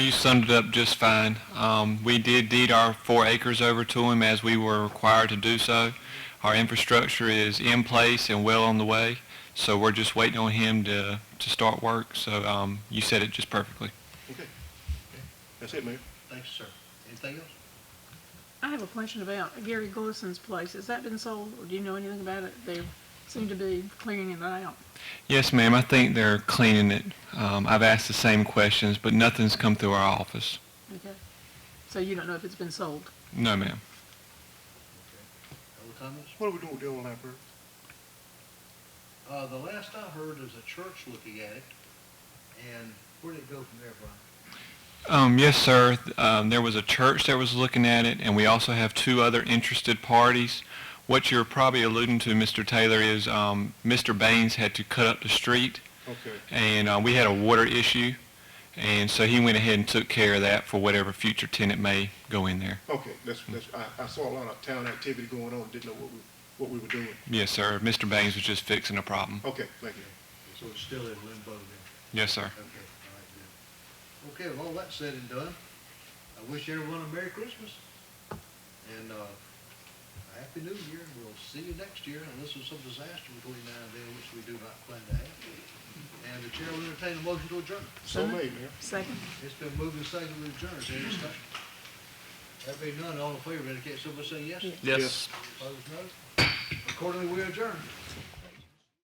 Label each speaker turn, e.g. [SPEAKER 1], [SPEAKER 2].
[SPEAKER 1] You summed it up just fine. Um, we did deed our four acres over to him as we were required to do so. Our infrastructure is in place and well on the way, so we're just waiting on him to, to start work. So, um, you said it just perfectly.
[SPEAKER 2] Okay. That's it, Mayor.
[SPEAKER 3] Thank you, sir. Anything else?
[SPEAKER 4] I have a question about Gary Glissan's place. Has that been sold, or do you know anything about it? They seem to be clearing it out.
[SPEAKER 1] Yes, ma'am, I think they're cleaning it. Um, I've asked the same questions, but nothing's come through our office.
[SPEAKER 4] Okay. So you don't know if it's been sold.
[SPEAKER 1] No, ma'am.
[SPEAKER 3] Other comments?
[SPEAKER 2] What are we doing with the old library?
[SPEAKER 3] Uh, the last I heard is a church looking at it, and where did it go from there, Brian?
[SPEAKER 1] Um, yes, sir. Um, there was a church that was looking at it, and we also have two other interested parties. What you're probably alluding to, Mr. Taylor, is um, Mr. Baines had to cut up the street,
[SPEAKER 2] Okay.
[SPEAKER 1] and uh, we had a water issue, and so he went ahead and took care of that for whatever future tenant may go in there.
[SPEAKER 2] Okay, that's, that's, I, I saw a lot of town activity going on, didn't know what we, what we were doing.
[SPEAKER 1] Yes, sir. Mr. Baines was just fixing a problem.
[SPEAKER 2] Okay, thank you.
[SPEAKER 3] So it's still in limbo then?
[SPEAKER 1] Yes, sir.
[SPEAKER 3] Okay, all right, good. Okay, with all that said and done, I wish everyone a Merry Christmas and, uh, a Happy New Year. We'll see you next year unless there's some disaster between now and then, which we do not plan to have. And the chair will entertain a motion to adjourn.
[SPEAKER 2] So made, Mayor.
[SPEAKER 4] Second.
[SPEAKER 3] It's been moved and seconded to adjourn. Is there any discussion? There being none, all in favor indicate so by saying yes.
[SPEAKER 1] Yes.
[SPEAKER 3] Opposed, no. Accordingly, we adjourn.